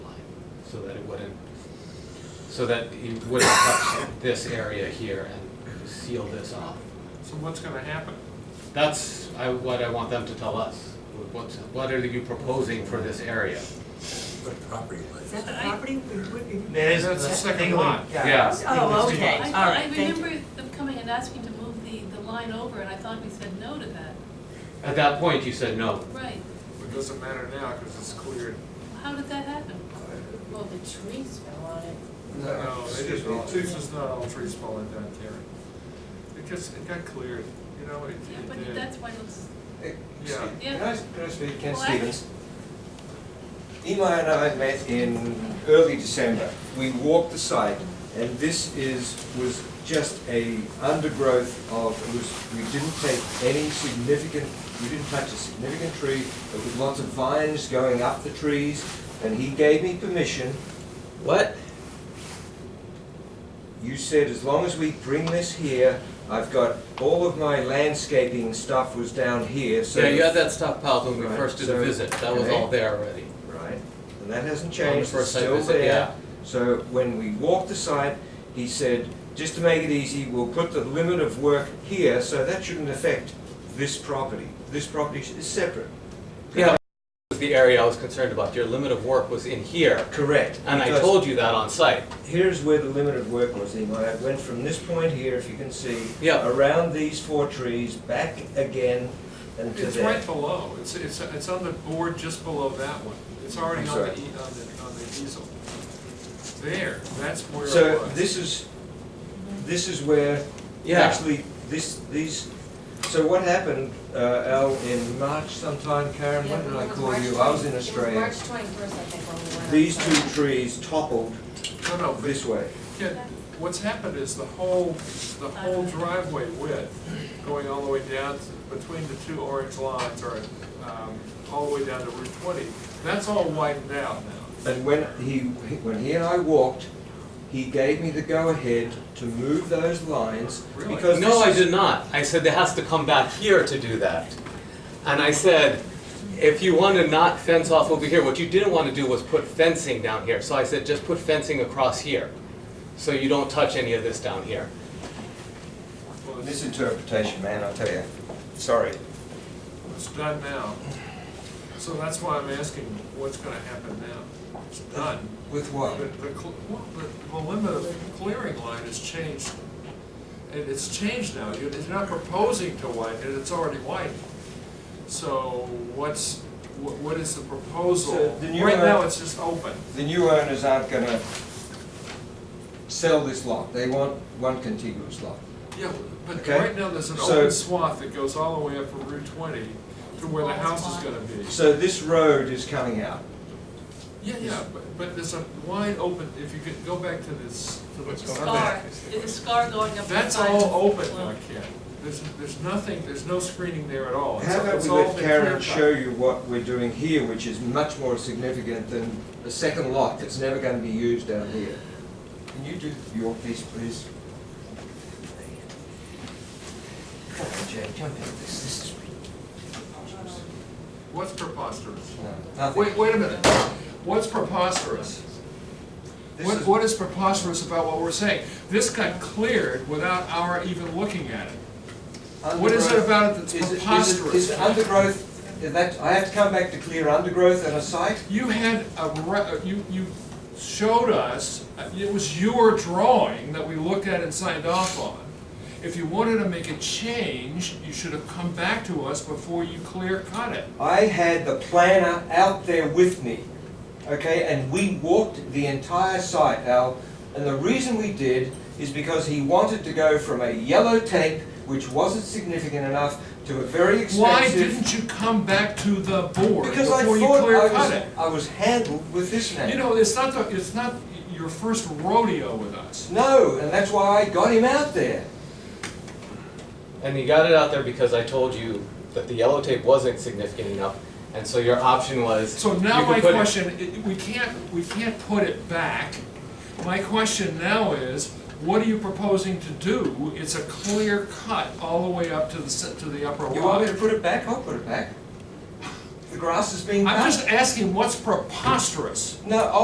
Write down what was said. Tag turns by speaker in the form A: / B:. A: so that it wouldn't, so that it wouldn't touch this area here and seal this off.
B: So what's gonna happen?
A: That's I, what I want them to tell us. What, what are you proposing for this area?
C: But property
D: Is
C: lines.
D: that the property? Would- would it-
B: There's a second lot.
A: Yeah.
D: Oh,
C: It's-
D: okay, all
E: I, I
D: right, thank you.
E: remember them coming and asking to move the, the line over, and I thought we said no to that.
A: At that point, you said no.
E: Right,
B: It doesn't matter now, cause it's cleared.
E: how did that happen?
F: Well, the trees fell on it.
B: No, they didn't, all- this Oh, is not all trees falling down, Karen. It just, it got cleared, you know, it,
E: Yeah,
B: it
E: but
B: did.
E: that's why it looks,
G: Hey,
B: Yeah.
G: Steve,
E: Yeah.
G: Can I, can I speak, Ken
E: Well, I-
G: Stevens? Ema and I met in early December. We walked the site, and this is, was just a undergrowth of, it was, we didn't take any significant, we didn't touch a significant tree. There was lots of vines going up the trees, and he gave me permission. What? You said as long as we bring this here, I've got, all of my landscaping stuff was down here, so.
A: Yeah, you had that stockpiled when we
G: Right,
A: first did the
G: so-
A: visit. That was
G: okay.
A: all there already.
G: Right, and that hasn't
A: On the
G: changed, it's
A: first site
G: still
A: visit,
G: there.
A: yeah.
G: So when we walked the site, he said, just to make it easy, we'll put the limit of work here, so that shouldn't affect this property. This property is separate.
A: Yeah. Was the area I was concerned about. Your limit of work was in here,
G: Correct.
A: and I
G: because
A: told you that on site.
G: Here's where the limit of work was, Imai. It went from this point here, if you can see.
A: Yeah.
G: Around these four trees, back again and to
B: It's
G: there.
B: right below, it's, it's, it's on the board just below that one. It's already
G: I'm
B: on the,
G: sorry.
B: e- on the, on the easel. There, that's where it was.
G: So this is, this is where,
A: Yeah.
G: actually, this, these, so what happened, uh, Al, in March sometime, Karen, when did I call you? I was in Australia.
F: March twenty-first, I think, when we went.
G: These
F: outside.
G: two trees toppled
B: No, no, but
G: this way.
B: Yeah, what's happened is the whole, the whole driveway width, going all the way down to- between the two orange lines, or, um, all the way down to Route twenty, that's all widened out now.
G: And when he, when he and I walked, he gave me the go-ahead to move those lines
B: Really?
G: because
A: No, I
G: this is-
A: did not. I said it has to come back here to do that. And I said, if you want to not fence off over here, what you didn't want to do was put fencing down here. So I said, just put fencing across here, so you don't touch any of this down here.
B: Well, it's-
G: Misinterpretation, man, I tell you. Sorry.
B: It's done now. So that's why I'm asking what's gonna happen now. It's done.
G: With
B: The,
G: what?
B: the cl- well, the- the limit of clearing line has changed. It, it's changed now. You're you're not proposing to widen it, it's already widened. So what's, what, what is the proposal?
G: So the new
B: Right
G: line-
B: now, it's just open.
G: The new owners aren't gonna sell this lot, they want one contiguous lot.
B: Yeah, but
G: Okay.
B: right now, there's an
G: So-
B: open swath that goes all the way up from Route twenty to where the house is gonna be.
G: So this road is coming out.
B: Yeah, yeah, but, but there's a wide open, if you could go back to this, to the.
E: scar, is a scar going up the
B: That's
E: side of the
B: all open now,
E: lawn.
B: Ken. There's, there's nothing, there's no screening there at all. Oh, It's-
G: How about
B: it's
G: we
B: all
G: let
B: been clear
G: Karen
B: cut.
G: show you what we're doing here, which is much more significant than the second lot that's never gonna be used down here. Can you do your piece, please? Come on, Jay, jump into this, this is preposterous.
B: What's preposterous?
G: No, nothing.
B: Wait, wait a minute. What's preposterous?
G: This
B: What,
G: is-
B: what is preposterous about what we're saying? This got cleared without our even looking at it. What is it
G: Undergrowth.
B: about it that's
G: Is it- is it-
B: preposterous?
G: Is it undergrowth, is that, I have to come back to clear undergrowth and a site?
B: You had a, re- you, you showed us, it was your drawing that we looked at and signed off on. If you wanted to make a change, you should have come back to us before you clear cut it.
G: I had the planner out there with me, okay, and we walked the entire site, Al. And the reason we did is because he wanted to go from a yellow tape, which wasn't significant enough, to a very expensive.
B: Why didn't you come back to the board
G: Because I
B: before you
G: thought
B: clear
G: I
B: cut
G: was,
B: it?
G: I was handled with this man.
B: You know, it's not, the- it's not your first rodeo with us.
G: No, and that's why I got him out there.
A: And you got it out there because I told you that the yellow tape wasn't significant enough, and so your option was.
B: So
A: you
B: now
A: could
B: my
A: put it-
B: question, i- we can't, we can't put it back. My question now is, what are you proposing to do? It's a clear cut all the way up to the, se- to the upper
G: You want me to
B: lot.
G: put it back? I'll put it back. The grass is being cut.
B: I'm just asking what's preposterous.
G: No,